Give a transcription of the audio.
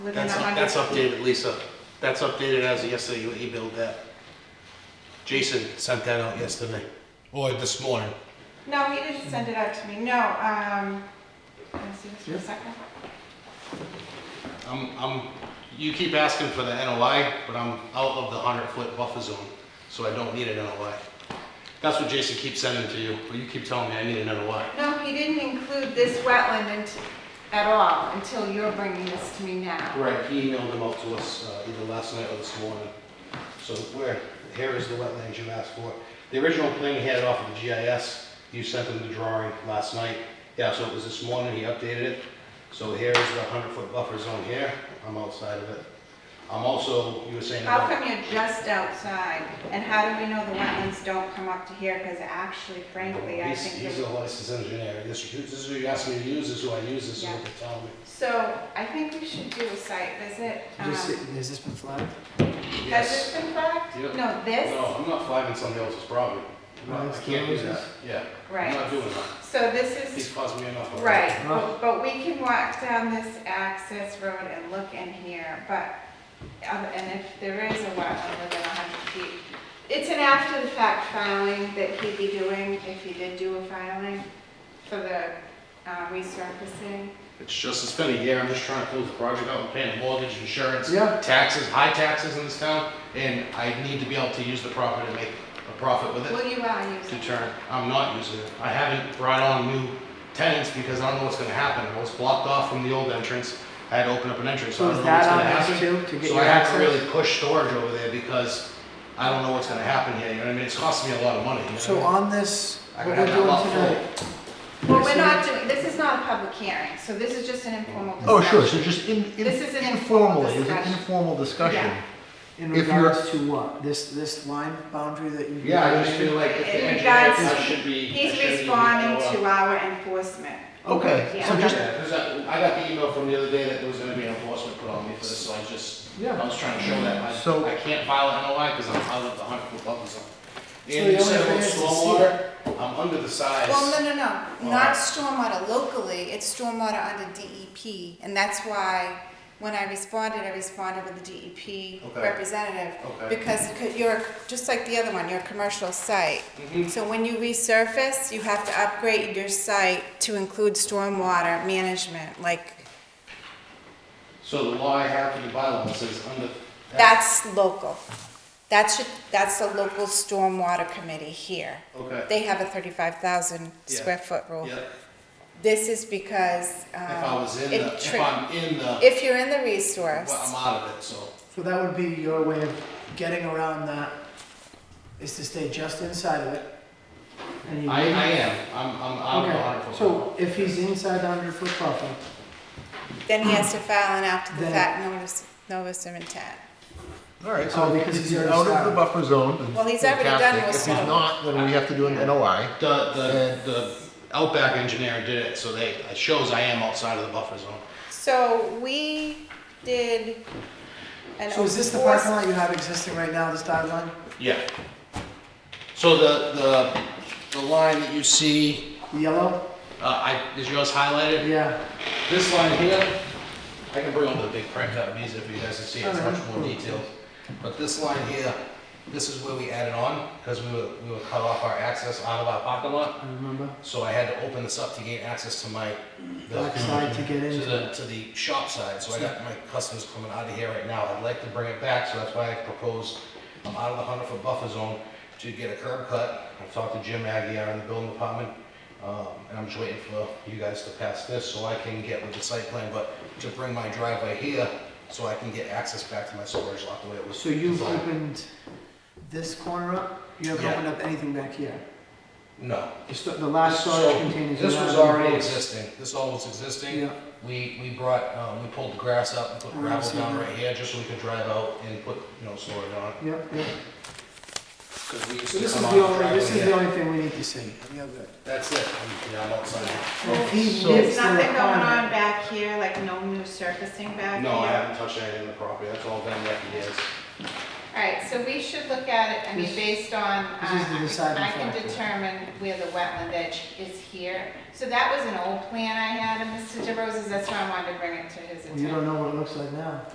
within That's, a up- hundred. that's updated, Lisa. That's updated as of yesterday, you emailed that. Jason sent that out yesterday, or this morning. No, he didn't send it out to me, no, um, let me see this for a second. I'm, I'm, you keep asking for the NOI, but I'm out of the hundred foot buffer zone, so I don't need an NOI. That's what Jason keeps sending to you, but you keep telling me I need an NOI. No, he didn't include this wetland int- at all until you're bringing this to me now. Right, he emailed them out to us uh, either last night or this morning. So where, here is the wetlands you asked for. The original plan he had it off of the GIS, you sent him the drawing last night. Yeah, so it was this morning, he updated it. So here is the 100-foot buffer zone here, I'm outside of it. I'm also, you were saying How about, come you're just outside? And how do we know the wetlands don't come up to here? Because actually frankly, I he's, think, he's the- a licensed engineer. This this is who you asked me to use, this is who I use, this is what they tell me. so I think we should do a site visit. Um, Uh, This, has this been flagged? Has this been flagged? Yep. No, this, No, I'm not flagging somebody else's property. I'm not- I can't do that, yeah. I'm not right. doing that. So this is He's caused me enough. already. Right, Huh? but- but we can walk down this access road and look in here, but, um, and if there is a wetland within hundred feet, it's an after-the-fact filing that he'd be doing, if he did do a filing, for the uh, resurfacing. It's just, it's been a year, I'm just trying to close the project out, I'm paying a mortgage, insurance, Yeah. taxes, high taxes in this town, and I need to be able to use the property to make a profit with it. Will you allow use To it? turn, I'm not using it, I haven't brought on new tenants because I don't know what's gonna happen, I was blocked off from the old entrance, I had to open up an entrance, so So I is don't know what's that on gonna us happen. too, to get So your I have access? to really push storage over there because I don't know what's gonna happen here, you know what I mean, it's costing me a lot of money, you know? So on this, I what could we're have doing that lot full. tonight? Well, we're not doing, this is not a public hearing, so this is just an informal discussion. Oh, sure, so just in, in- This is an informal informally, it was an discussion. informal discussion. Yeah. In If you're- regards to what? This, this line boundary that you. Yeah, I just feel like if the In engineer, regards- I should be. I He's should be, responding uh, to our enforcement. Okay, so Yeah. just, Yeah, 'cause I, I got the email from the other day that there was gonna be an enforcement put on me for this, so I just, I Yeah. was trying to show that, So- I, I can't file an NOI because I'm out of the hundred foot buffer zone. the And you only said thing about is to see stormwater, I'm under the Well, size, no, no, no, Uh-huh. not stormwater locally, it's stormwater under DEP, and that's why when I responded, I responded with the DEP Okay. representative. Okay. Because you could- you're, just like the other one, you're a commercial site. Mhm. So when you resurface, you have to upgrade your site to include stormwater management, like, so the law I have for the bylaw says under. that's local. That's, your- that's the local stormwater committee here. Okay, They have a thirty-five thousand square foot rule. yeah, This is because, um. if I was in it the, if tri- I'm in the, If you're in the well, I'm resource, out of it, so. So that would be your way of getting around that, is to stay just inside of it. and you- I, I am, I'm, I'm out of the hundred foot. Okay, so if he's inside the hundred foot buffer, then he has to file an after the Then- fact notice, notice of intent. all right, Oh, so if because he's he's already out of the signed. buffer zone. Well, he's already done fantastic. with If some. he's not, then we have to do an NOI. The, And- the, the Outback engineer did it, so they, it shows I am outside of the buffer zone. So we did an so is this the parking enforcement. lot you have existing right now, this dotted line? Yeah. So the, the, the line that you see, The Yellow? uh, I, is yours highlighted? Yeah, This line here, I can bring over the big print out, it's easier for you guys to see, it's much more detailed. But this line here, this is where we added on, because we were, we were cut off our access out of our parking lot. I remember. So I had to open this up to gain access to my, Black side to get to into the, to the shop side. So I got my customers coming out of here right now. I'd like to bring it back, so that's why I proposed, I'm out of the hundred foot buffer zone to get a curb cut. I've talked to Jim Aguirre in the building department, um, and I'm just waiting for you guys to pass this so I can get with the site plan, but to bring my driveway here so I can get access back to my storage lot the way it was. So you've designed. opened this corner up, you haven't Yeah. opened up anything back here? No. The sto- The last storage So containers. This are was not in already place. existing. This all was existing. Yeah, We, we brought, um, we pulled the grass up and put Oh, I gravel see down that. right here, just so we could drive out and put, you know, storage on. yeah, yeah. Because we used So to this is come the out and only, drive this is in the there. only thing we need to see. Yeah, good. That's it, I'm- yeah, I'm outside. If he So- meets There's the nothing going on requirement, back here, like no new surfacing back here? No, I haven't touched anything in the property, that's all been left years. All right, so we should look at it, I mean, This- based on, uh, this is the deciding I can factor. determine where the wetland edge is here. So that was an old plan I had of Mr. DeRosa's, that's why I wanted to bring it to his Well, you don't attention. know what it looks like now.